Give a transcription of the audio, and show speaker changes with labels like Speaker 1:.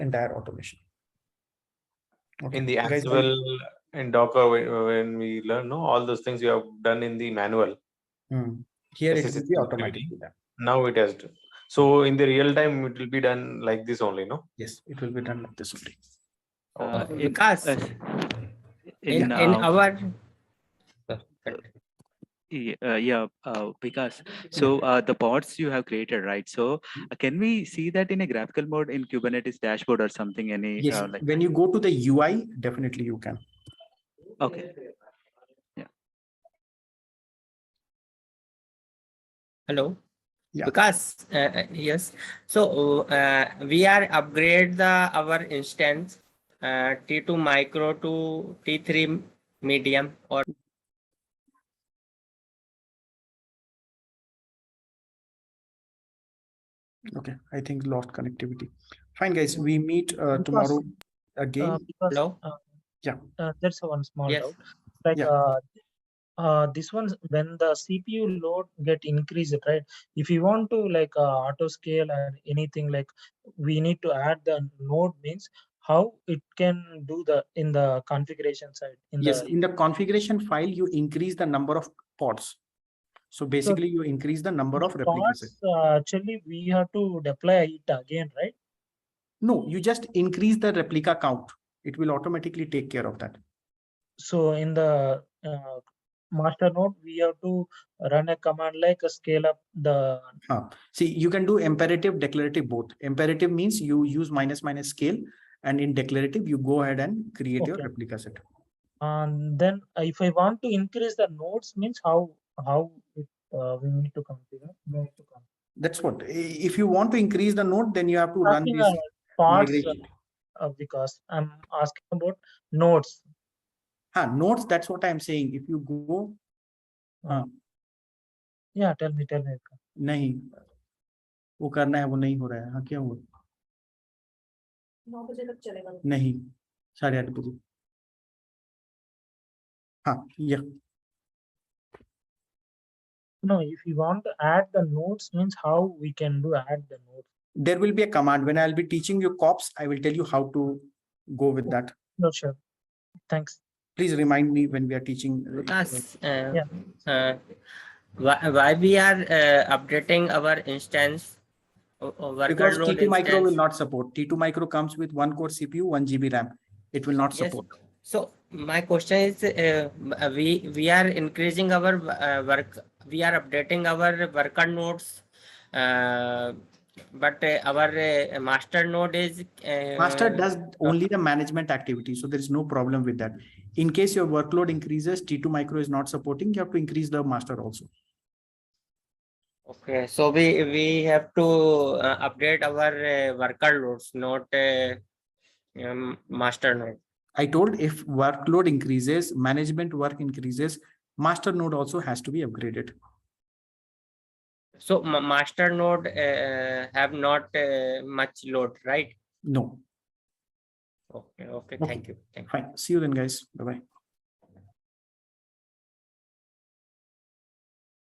Speaker 1: entire automation. Okay,
Speaker 2: In the
Speaker 1: you guys
Speaker 2: actual,
Speaker 1: want-
Speaker 2: in Docker, when- when we learn, no, all those things we have done in the manual,
Speaker 1: Hmm. Here it
Speaker 2: This is
Speaker 1: will be
Speaker 2: activity.
Speaker 1: automatically done.
Speaker 2: now it has. to- So in the real time, it will be done like this only, no?
Speaker 1: Yes, it will be done like this only.
Speaker 3: Uh, in, uh,
Speaker 4: Vikas, in, in, in
Speaker 3: uh,
Speaker 4: our
Speaker 3: y- uh, yeah, uh, Vikas. So uh, the bots you have created, right? So uh, can we see that in a graphical mode in Kubernetes dashboard or something? Any
Speaker 1: Yes,
Speaker 3: uh, like
Speaker 1: when you go to the UI, definitely you can.
Speaker 3: okay,
Speaker 4: hello
Speaker 1: Yeah.
Speaker 4: Vikas, uh, uh, yes so uh, we are upgrade the our instance uh, t2 micro to t3 medium or
Speaker 1: Okay, I think lost connectivity. Fine, guys, we meet uh,
Speaker 5: Because,
Speaker 1: tomorrow
Speaker 5: Uh,
Speaker 1: again.
Speaker 5: because
Speaker 4: Hello?
Speaker 5: uh,
Speaker 1: Yeah.
Speaker 5: uh, that's one small
Speaker 4: Yes.
Speaker 5: doubt. Like
Speaker 1: Yeah.
Speaker 5: uh, uh, this one's when the CPU load get increased, right? If you want to like uh, auto scale and anything like, we need to add the node means how it can do the in the configuration side. In
Speaker 1: Yes,
Speaker 5: the,
Speaker 1: in the configuration file, you increase the number of pods. So basically, you increase the number of replicas.
Speaker 5: parts, uh, actually, we have to deploy it again, right?
Speaker 1: No, you just increase the replica count. It will automatically take care of that.
Speaker 5: So in the uh, master node, we have to run a command like a scale up the
Speaker 1: See, you can do imperative, declarative both. Imperative means you use minus minus scale, and in declarative, you go ahead and create your
Speaker 5: Okay.
Speaker 1: replica set.
Speaker 5: And then uh, if I want to increase the nodes means how, how it, uh, we need to configure. we need to configure.
Speaker 1: That's what, i- if you want to increase the node, then you have to run
Speaker 5: Asking,
Speaker 1: this.
Speaker 5: uh, Parts,
Speaker 1: migrate
Speaker 5: uh,
Speaker 1: it.
Speaker 5: uh, because I'm asking about nodes.
Speaker 1: Huh, nodes, that's what I'm saying. If you go, हाँ.
Speaker 5: Yeah, tell me, tell me.
Speaker 1: नहीं, वो करना है, वो नहीं हो रहा है. हाँ, क्या हुआ?
Speaker 6: नौ बजे तक चलेगा
Speaker 1: नहीं, साढ़े आठ बजे. हाँ, yeah.
Speaker 5: No, if you want to add the nodes means how we can do add the nodes.
Speaker 1: there will be a command when I'll be teaching you cops. I will tell you how to go with that.
Speaker 5: No, sure. Thanks.
Speaker 1: Please remind me when we are teaching. uh,
Speaker 4: Vikas, uh,
Speaker 5: Yeah.
Speaker 4: uh, why, why we are uh, updating our instance o- o- worker
Speaker 1: Because
Speaker 4: node
Speaker 1: T2 micro will
Speaker 4: instance?
Speaker 1: not support. T2 micro comes with one core CPU, one GB RAM. It will not
Speaker 4: Yes.
Speaker 1: support.
Speaker 4: So my question is, uh, m- uh, we, we are increasing our w- uh, work, we are updating our worker nodes. uh, But uh, our uh, master node is.
Speaker 1: Master
Speaker 4: uh,
Speaker 1: does only the management activity, so there is no problem with that. In case your workload increases, T2 micro is not supporting, you have to increase the master also.
Speaker 4: Okay, so we, we have to uh, update our uh, worker nodes, not uh, um, master node.
Speaker 1: I told if workload increases, management work increases, master node also has to be upgraded.
Speaker 4: So ma- master node uh, have not uh, much load, right?
Speaker 1: No,
Speaker 4: Okay, okay,
Speaker 1: Okay.
Speaker 4: thank you, thank you.
Speaker 1: fine. See you then, guys. Bye bye.